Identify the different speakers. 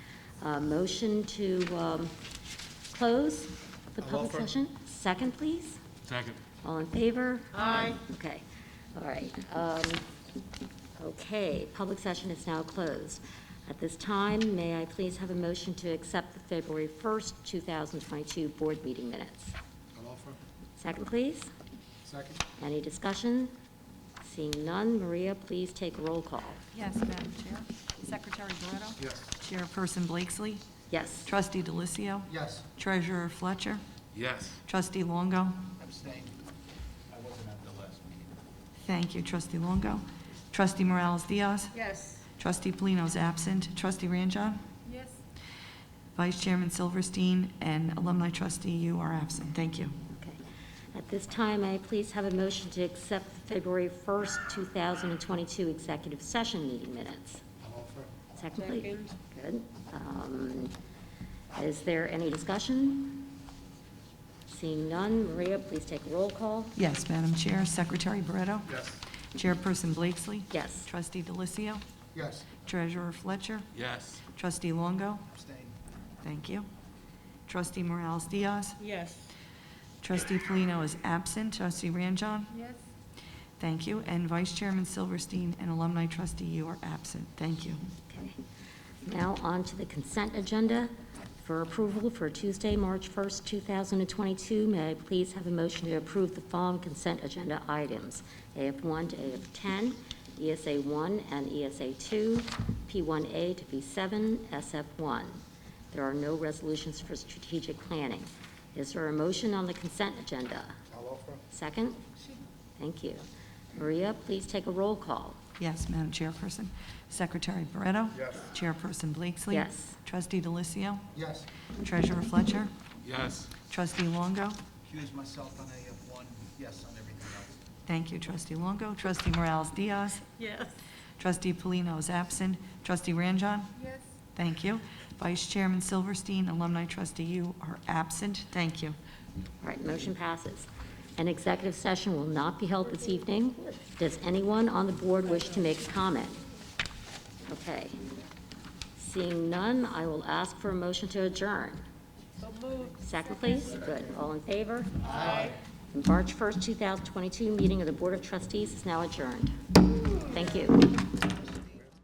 Speaker 1: Uh, Motion to um, close the
Speaker 2: I'll
Speaker 1: public
Speaker 2: offer.
Speaker 1: session? Second, please?
Speaker 3: Second.
Speaker 1: All in favor? Aye. Okay, all right. Um, Okay, public session is now closed. At this time, may I please have a motion to accept the February 1st, 2022 board meeting minutes?
Speaker 2: I'll offer.
Speaker 1: Second, please?
Speaker 2: Second?
Speaker 1: Any discussion? Seeing none, Maria, please take roll call.
Speaker 4: Yes, Madam Chair. Secretary Barretto?
Speaker 2: Yes.
Speaker 4: Chairperson Blakesley?
Speaker 1: Yes.
Speaker 4: Trustee Delicio?
Speaker 2: Yes.
Speaker 4: Treasurer Fletcher?
Speaker 3: Yes.
Speaker 4: Trustee Longo?
Speaker 2: Abstain. I wasn't at the last meeting.
Speaker 4: Thank you, Trustee Longo. Trustee Morales Diaz?
Speaker 5: Yes.
Speaker 4: Trustee Polino's absent. Trustee Ranjan?
Speaker 5: Yes.
Speaker 4: Vice Chairman Silverstein and Alumni Trustee, you are absent. Thank you.
Speaker 1: Okay. At this time, I please have a motion to accept the February 1st, 2022 executive session meeting minutes.
Speaker 2: I'll offer.
Speaker 1: Second, please. Good. Um, Is there any discussion? Seeing none, Maria, please take roll call.
Speaker 4: Yes, Madam Chair. Secretary Barretto?
Speaker 2: Yes.
Speaker 4: Chairperson Blakesley?
Speaker 1: Yes.
Speaker 4: Trustee Delicio?
Speaker 2: Yes.
Speaker 4: Treasurer Fletcher?
Speaker 3: Yes.
Speaker 4: Trustee Longo?
Speaker 2: Abstain.
Speaker 4: Thank you. Trustee Morales Diaz?
Speaker 5: Yes.
Speaker 4: Trustee Polino is absent. Trustee Ranjan?
Speaker 5: Yes.
Speaker 4: Thank you. And Vice Chairman Silverstein and Alumni Trustee, you are absent. Thank you.
Speaker 1: Okay. Now on to the consent agenda for approval for Tuesday, March 1st, 2022. May I please have a motion to approve the following consent agenda items? AF1 to AF10, ESA 1 and E ESA 2, P1A to P7, SF1. There are no resolutions for strategic planning. Is there a motion on the consent agenda?
Speaker 2: I'll offer.
Speaker 1: Second? Thank you. Maria, please take a roll call.
Speaker 4: Yes, Madam Chairperson. Secretary Barretto?
Speaker 2: Yes.
Speaker 4: Chairperson Blakesley?
Speaker 1: Yes.
Speaker 4: Trustee Delicio?
Speaker 2: Yes.
Speaker 4: Treasurer Fletcher?
Speaker 3: Yes.
Speaker 4: Trustee Longo?
Speaker 6: Accuse myself on AF one, yes on everything else.
Speaker 4: Thank you, Trustee Longo. Trustee Morales Diaz?
Speaker 5: Yes.
Speaker 4: Trustee Polino is absent. Trustee Ranjan?
Speaker 5: Yes.
Speaker 4: Thank you. Vice Chairman Silverstein, Alumni Trustee, you are absent. Thank you.
Speaker 1: All right, motion passes. An executive session will not be held this evening. Does anyone on the board wish to make a comment? Okay. Seeing none, I will ask for a motion to adjourn. Second, please. Good. All in favor? Aye. March 1st, 2022, meeting of the Board of Trustees is now adjourned. Thank you.